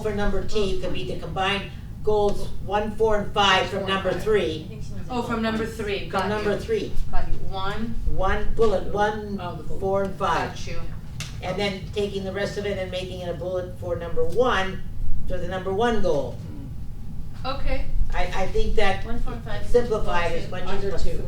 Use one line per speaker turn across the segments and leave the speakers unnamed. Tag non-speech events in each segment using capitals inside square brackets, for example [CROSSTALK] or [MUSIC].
for number T could be to combine goals one, four, and five from number three,
Oh, from number three, got
from
you.
number three.
Got you, one,
One bullet, one,
Oh, the bullet.
four, and five.
got you,
And then taking the rest of it and making it a bullet for number one, for the number one goal.
okay,
I, I think that
One, four, five.
simplified as much as possible.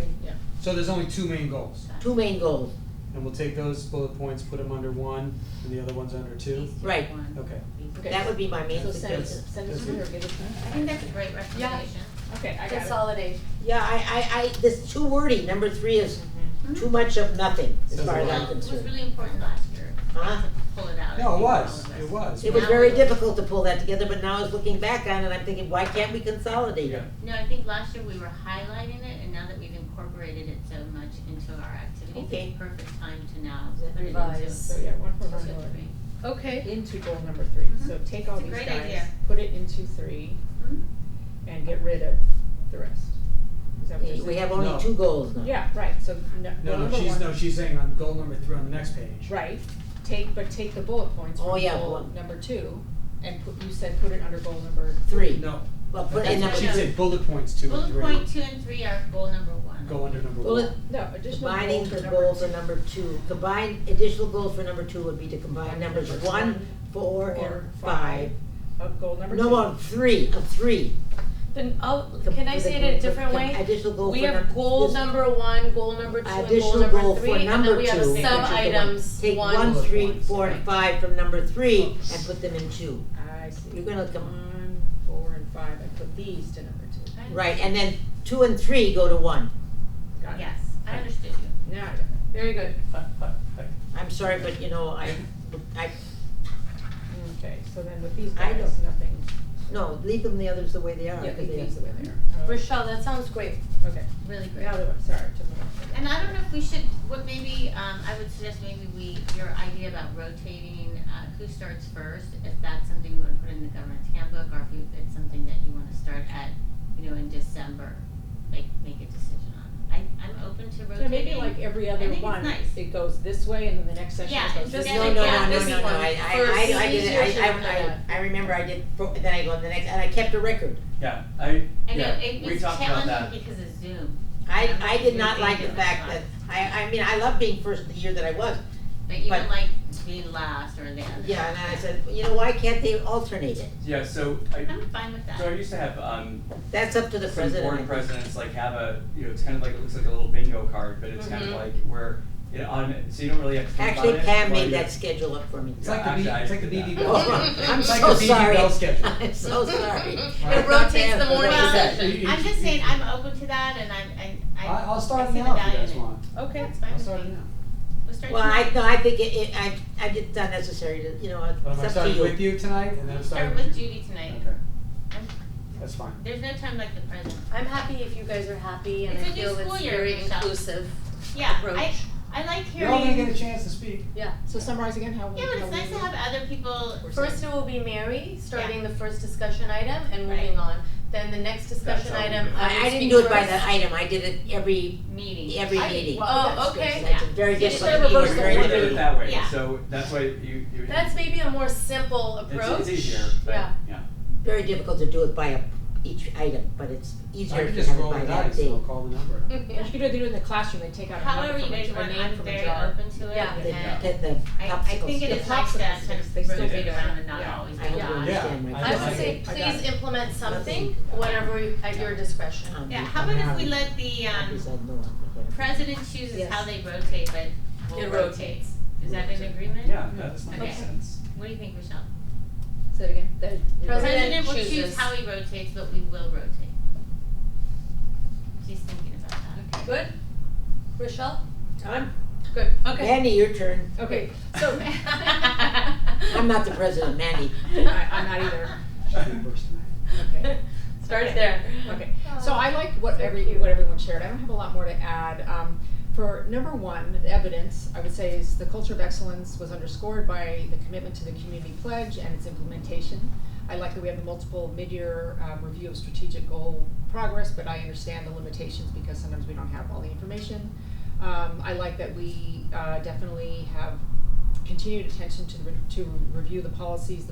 So there's only two main goals,
Two main goals,
and we'll take those bullet points, put them under one, and the other one's under two?
right.
Okay.
Okay.
That would be my main
So send it,
suggestion.
send it to her, give it to
I
her.
think that's a great recommendation.
Okay, I got
consolidate.
Yeah, I, I, I, this too wordy, number three is
Mm-hmm.
too much of nothing, as
Says
far
a
as
lot.
I'm
Well, Um, it was
concerned.
really important last year
Huh?
to pull it out. I
No, it
think,
was,
all of us.
it was.
It was very difficult to pull that together, but now I was looking back on it, I'm thinking, why can't we consolidate it?
No, I think last year we were highlighting it and now that we've incorporated it so much into our activities,
Okay.
it's perfect time to now
Is that
put it into.
it. So, yeah, one for
into
one,
three.
Okay,
into goal number three, so take all
Mm-hmm. It's a
these
great
guys,
idea.
put it into three,
Mhm.
and get rid of the rest. Is that what you're
Eh, We
saying?
have only
No.
two goals now.
Yeah, right, so no, goal
No, no,
number
she's,
one-
no, she's saying on goal number three on the next page.
Right, take, but take the bullet points
Oh,
from
yeah,
goal
bullet.
number two, and put, you said put it under goal number,
Three,
No,
well, Oh, put in number
That's
she
what
two,
said bullet points two and
Bullet
three,
point two and three are goal number one.
go under number
bullet,
one.
no, additional
combining
goal
the
for
goal
number
for
two.
number two, combine, additional goals for number two would be to combine numbers one, four,
Four,
and five.
five. Of goal number two.
No, no, three, of three.
Then, oh,
Com-
can I say it in a
the-
different
com-
way?
Additional goal for
We
number.
have goal
this-
number one, goal number two, and goal
Additional goal
number
for
three, and
number
then we
two.
have a sub
Which is the one.
items,
Take one,
one,
three,
Bullet
four, and five from number three and put them in two.
I see.
You're gonna come-
One, four, and five, I put these to number two.
I-
Right, and then two and three go to one.
Got it.
Yes, I understood you.
Now, I got it.
Very good.
I'm sorry, but you know, I, I,
okay, so then with these
I
guys,
don't-
nothing,
no, leave them the others the way they are.
yeah,
'cause
leave
they-
these the way they are.
Rochelle, that sounds great.
Okay,
Really great.
now the one, sorry, to the one.
And I don't know if we should, what maybe, um, I would suggest maybe we, your idea about rotating, uh, who starts first, if that's something you would put in the governance handbook, or if you- it's something that you wanna start at, you know, in December, like, make a decision on. I, I'm open to rotating.
So maybe like every
I
other
think it's
one,
nice.
it goes this way and then the next session
Yeah,
it goes
it's
this way.
Yeah,
No, no,
yeah,
no, no,
this
no,
is
no,
one.
I,
For
I, I, I did,
seniors,
it.
you
I,
should
I,
know
I, I remember I did, fo- then I go on the next, and I kept a record.
Yeah, I,
I know,
yeah,
it
we
was
talked about
challenging
that.
because of Zoom,
I, I did not like the fact that, I, I mean, I love being first the year that I was,
but you
But-
would like being last or the other.
yeah, and I said, you know, why can't they alternate it?
Yeah, so I,
I'm fine with that.
so I used to have, um,
That's up to the
some
president.
board presidents like have a, you know, it's kind of like, it looks like a little bingo card, but it's kind of
Mhm.
like where, it autom- so you don't really have to think about it.
Mm-hmm. Actually, Pam
while
made
you-
that schedule up for me.
It's like the B, it's like the BB Bell.
Oh, [LAUGHS] I'm
It's like
so
the BB
sorry.
Bell schedule.
[LAUGHS] I'm so
[LAUGHS]
sorry.
It
rotates the morning
Well,
session.
I'm just saying, I'm open to that, and I'm, and I.
I, I'll
I
start
see
now
the
if you
value in
guys
it.
want.
Okay.
That's fine
I'll
with
start
me.
now.
We'll start
Well, I,
tonight.
no, I think it, it, I, I did, it's not necessary to, you know, it's
But I'm
up
gonna
to
start with
you.
you tonight, and then I'll
We'll
start
Start
with
with
you.
Judy tonight.
Okay, that's fine.
There's no time like the present.
I'm happy if you guys are happy and
It's
I
a new
feel
school
it's
year,
very
Rochelle.
inclusive
Yeah, I,
approach.
I like
You're all gonna get
hearing,
a chance to speak.
Yeah.
So summarize again how we.
yeah, but
how
it's
we
nice to
do.
have other people,
First it will be Mary, starting the first discussion item and
Right.
moving on. Then the next discussion
how we
item,
do it.
I
I, I
will
didn't
speak
do it by
first.
the item, I did it every,
meeting.
every
I did-
meeting.
well,
Oh,
that's good.
okay.
That's a very
Yeah. You should
different,
reverse
meeting,
the
very
You
order.
did
different.
it that way,
Yeah.
so that's why you, you.
That's maybe a more simple
It's,
approach.
it's easier, but, [LAUGHS]
Yeah.
yeah.
very difficult to do it by a, each item, but it's
I
easier
can
to
just
have it
roll
by
the
that
dice, and I'll
date.
call the number.
Or you could either do it in the classroom, they take out a
However
number
you
from a
guys
jar, a
want,
name
I'm
from a
very
jar.
open to it,
Yeah.
and
The, the, the
I, I think
popsicle
it is
stick.
nice to
popsicle
kind
sticks, they
of
still
rotate
do that.
around and not
Yeah.
always
I
do
hope you
that.
Yeah.
understand my.
I
Okay.
would say,
I got
please
it.
implement something whenever, you- at your discretion.
Um,
Yeah, how
I'm
about if
happy-
we let the,
happy
um,
said no, I'm gonna-
president chooses
Yes.
how they rotate, but
It
who
rotates.
rotates? Is that in agreement?
Mm-hmm.
Yeah, that's that
Okay.
makes sense.
What do you think, Michelle?
Say it again, that.
President
President
will choose
chooses.
how he rotates, but we will rotate. She's thinking about that.
Good? Rochelle?
I'm-
Good, okay.
Mandy, your turn.
Okay, so, [LAUGHS]
I'm not the president, Mandy.
I, I'm not either,
Should be first tonight.
okay,
[LAUGHS] Start [LAUGHS] there.
okay. So I like what
Oh, So
every,
cute.
what everyone shared, I don't have a lot more to add. Um, for number one, the evidence, I would say is the culture of excellence was underscored by the commitment to the community pledge and its implementation. I like that we have the multiple mid-year um, review of strategic goal progress, but I understand the limitations because sometimes we don't have all the information. Um, I like that we uh, definitely have continued attention to, re- to review the policies, the